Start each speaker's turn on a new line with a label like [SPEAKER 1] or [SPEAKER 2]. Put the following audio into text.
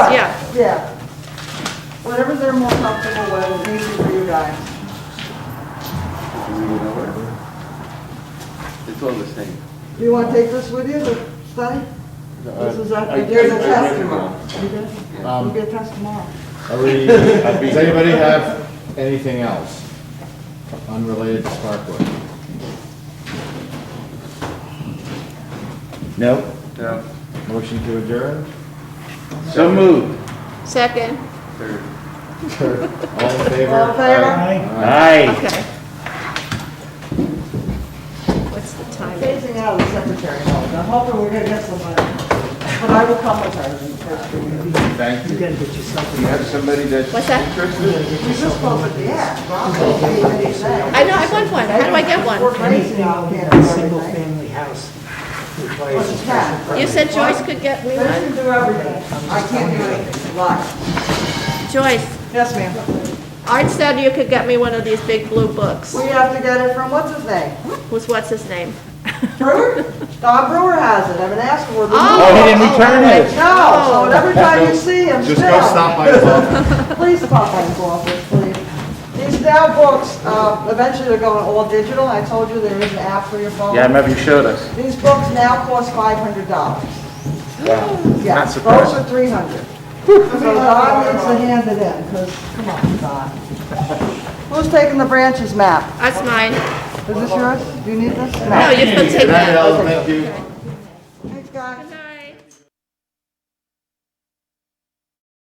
[SPEAKER 1] Yeah. Whatever they're more comfortable with, it's easy for you guys.
[SPEAKER 2] It's all the same.
[SPEAKER 1] Do you want to take this with you, the study? This is, a-
[SPEAKER 3] I-
[SPEAKER 1] it is a
[SPEAKER 3] I- I-
[SPEAKER 1] test tomorrow. You did? It'll
[SPEAKER 3] Um,
[SPEAKER 1] be a test tomorrow.
[SPEAKER 3] Are we, does anybody have anything else unrelated to Sparkwood? No?
[SPEAKER 2] Yeah.
[SPEAKER 3] Motion to adjourn?
[SPEAKER 2] So moved.
[SPEAKER 4] Second,
[SPEAKER 2] Third.
[SPEAKER 3] Sure. All in favor?
[SPEAKER 1] All in favor?
[SPEAKER 3] Aye.
[SPEAKER 2] Aye.
[SPEAKER 4] okay. What's the time?
[SPEAKER 1] Phasing out the secretary, though. I'm hoping we're gonna get somebody. But I will come with her in the first few meetings.
[SPEAKER 3] Thank you.
[SPEAKER 2] You have somebody that's
[SPEAKER 4] What's that?
[SPEAKER 2] interested?
[SPEAKER 1] We just closed it, yeah. Rob, they didn't even say.
[SPEAKER 4] I know, I want one, how do I get one?
[SPEAKER 1] We're crazy
[SPEAKER 5] Anything
[SPEAKER 1] out
[SPEAKER 5] in
[SPEAKER 1] here.
[SPEAKER 5] a single-family house requires a
[SPEAKER 1] What's that?
[SPEAKER 5] special permit.
[SPEAKER 4] You said Joyce could get me
[SPEAKER 1] They can
[SPEAKER 4] one?
[SPEAKER 1] do everything. I can't do anything, live.
[SPEAKER 4] Joyce,
[SPEAKER 1] Yes, ma'am.
[SPEAKER 4] Art said you could get me one of these big blue books.
[SPEAKER 1] We have to get it from, what's his name?
[SPEAKER 4] Who's, what's his name?
[SPEAKER 1] Brewer? Don Brewer has it, I've been asking for it.
[SPEAKER 4] Oh,
[SPEAKER 2] he didn't return it.
[SPEAKER 1] No, so and every time you see him, still.
[SPEAKER 3] Just go stop by the office.
[SPEAKER 1] Please stop by his office, please. These now books, uh, eventually they're going all digital, I told you there is an app for your phone.
[SPEAKER 2] Yeah, I remember you showed us.
[SPEAKER 1] These books now cost five hundred dollars. Yeah,
[SPEAKER 2] Not
[SPEAKER 1] those
[SPEAKER 2] surprised.
[SPEAKER 1] are three hundred. So Don needs to hand it in, because, come on, Don. Who's taking the branches map?
[SPEAKER 4] That's mine.
[SPEAKER 1] Is this yours? Do you need this?
[SPEAKER 4] No, you can take
[SPEAKER 3] United
[SPEAKER 4] that.
[SPEAKER 3] Health, thank you.